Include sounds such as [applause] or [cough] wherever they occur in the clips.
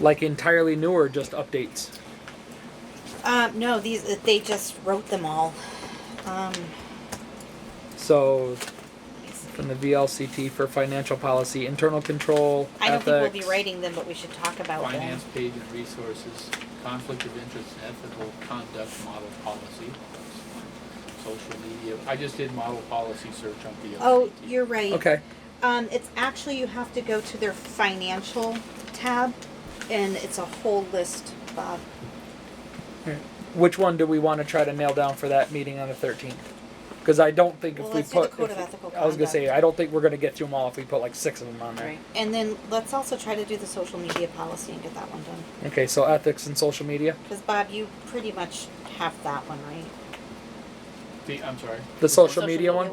like entirely new or just updates? Um, no, these they just wrote them all. Um, So from the VLCT for financial policy, internal control, I don't ethics. think we'll be writing them, but we should talk about Finance page and resources, conflict of interest and ethical conduct model policy. Social media, I just did model policy search on VLCT. them. Oh, you're right. Okay. Um, it's actually you have to go to their financial tab, and it's a whole list, Bob. Which one do we want to try to nail down for that meeting on the 13th? Because I don't think Well, if we let's do the put, code if- of ethical I was gonna conduct. say I don't think we're gonna get through them all if we put like six of them on there. And then let's also try to do the social media policy and get that one done. Okay, so ethics and social media. Because Bob, you pretty much have that one, right? The, I'm sorry. The social media one?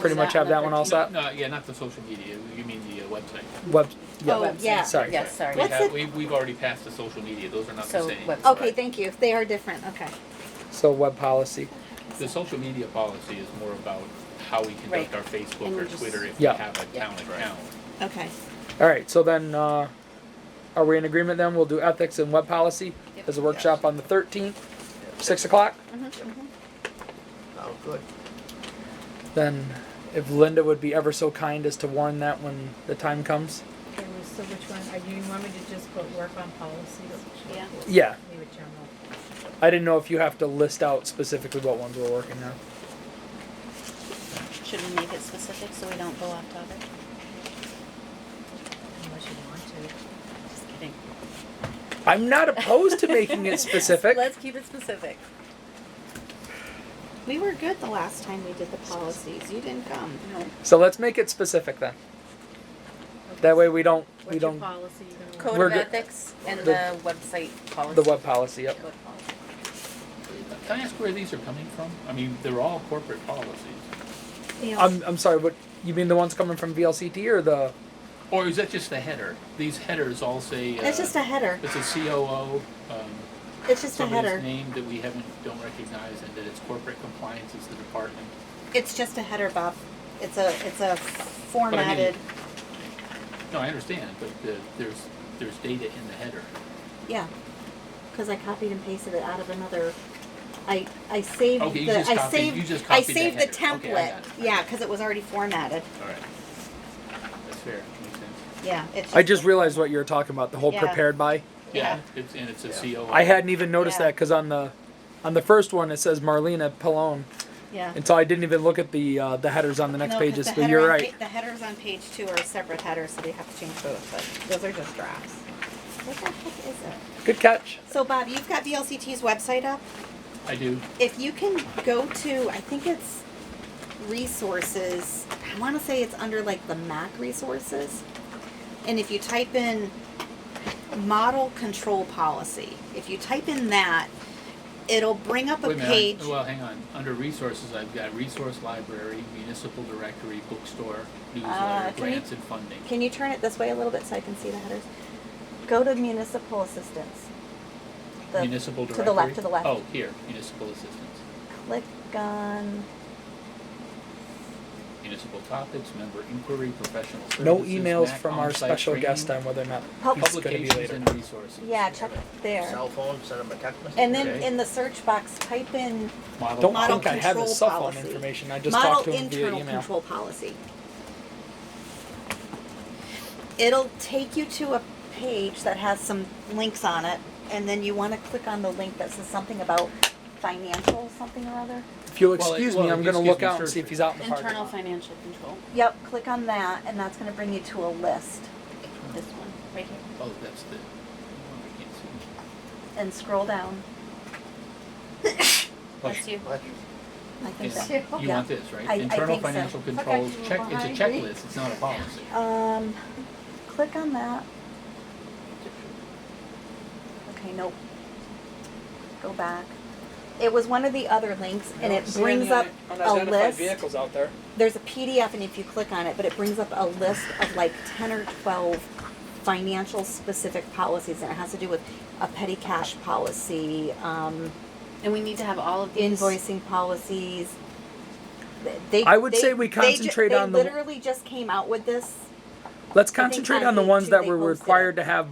Pretty much have that one all No, set? No, yeah, not the social media, you mean the uh, website. Web, Oh, yeah, website. yeah. sorry. Yes, sorry. We What's have, it- we, we've already passed the social media, those are not the So same. web- Okay, Right. thank you. They are different. Okay. So web policy. The social media policy is more about how we Right. conduct our Facebook And or we just- Twitter if we Yeah. have a Yeah. town account. Okay. All right, so then, uh, are we in agreement then? We'll do ethics and web policy as a workshop on the thirteenth, six o'clock? Oh, good. Then if Linda would be ever so kind as to warn that when the time comes. Okay, well, so which one, are you, you want me to just put work on policies? Yeah. Yeah, Leave it general. I didn't know if you have to list out specifically what ones we're working on. Should we make it specific so we don't go off topic? Unless you want to. Just kidding. I'm not [laughs] opposed to making it specific. Let's keep it specific. We were good the last time we did the policies. You didn't come. No. So let's make it specific then. That way we don't, we What's your don't, policy you're gonna want? Code We're of go- ethics and the- the website policy. the web policy, yep. Code policy. Can I ask where these are coming from? I mean, they're all corporate policies. Um, I'm, I'm sorry, what, you mean the ones coming from VLCT or the, Or is that just the header? These headers all say, uh, it's just a header. it's a COO, um, It's just a header. somebody's name that we haven't, don't recognize, and that it's corporate compliance is the department. It's just a header, Bob. It's a it's a formatted. No, I understand, but the, there's, there's data in the header. Yeah. Because I copied and pasted it out of another. I I saved Okay, you the just I copied- saved you just I copied the saved the, header. template. Okay, I got it. yeah, because it was already formatted. All right. That's fair, makes sense. Yeah. It's I just realized what you were talking about, the whole Yeah. prepared by. Yeah, it's, and it's a COO. I hadn't even noticed Yeah. that 'cause that because on the on the first one it says Marlena Pallone, Yeah. and so I didn't even look at the uh, the headers on the next No, 'cause pages. the But header you're on right. pa- the headers on page two are separate headers, so they have to change both. But those are just drafts. What the heck is it? Good catch. So Bob, you've got VLCT's website up. I do. If you can go to, I think it's resources. I want to say it's under like the Mac resources. And if you type in model control policy, if you type in that, it'll bring up a Wait minute, I- page. Well, hang on, under resources, I've got resource library, municipal directory, bookstore, Ah, newsletter, can you- grants and funding. Can you turn it this way a little bit so I can see the headers? Go to municipal assistance. The- Municipal to directory? the left, to the left. Oh, here, municipal assistance, Click on, municipal topics, member inquiry, professional services. No emails MAC, from our on-site special guest training, on whether or not Pub- he's going to be Publications later. and resources. yeah, check there. Cell phone, send them a text message. And then Okay. in the search box, type in Model Don't Model think I have his control cell phone policy. information. I just talked to model him via internal email. control policy. It'll take you to a page that has some links on it, and then you want to click on the link that says something about financial something or other. If you'll Well, it- excuse me, well, I'm going to excuse look me, out and see if search he's out in the parking Internal lot. financial control, Yep, click on that, and that's going to bring you to a list. this one, right here. Oh, that's the, I can't see. And scroll down. That's you. What? I think Yes. that. You yeah. want this, I- I right? Internal think so. financial controls, you check, it's a behind me. checklist, it's not a policy. Um, click on that. Okay, nope. Go back. It was one of the other links, and it brings up a list. out there. There's a PDF, and if you click on it, but it brings up a list of like ten or twelve financial specific policies, and it has to do with a petty cash policy, um, And we need to have all of these. invoicing policies. Th- They, I would they- say we they ju- concentrate on the- They literally just came out with this Let's I think concentrate on on the page ones two that they we're posted it. required to have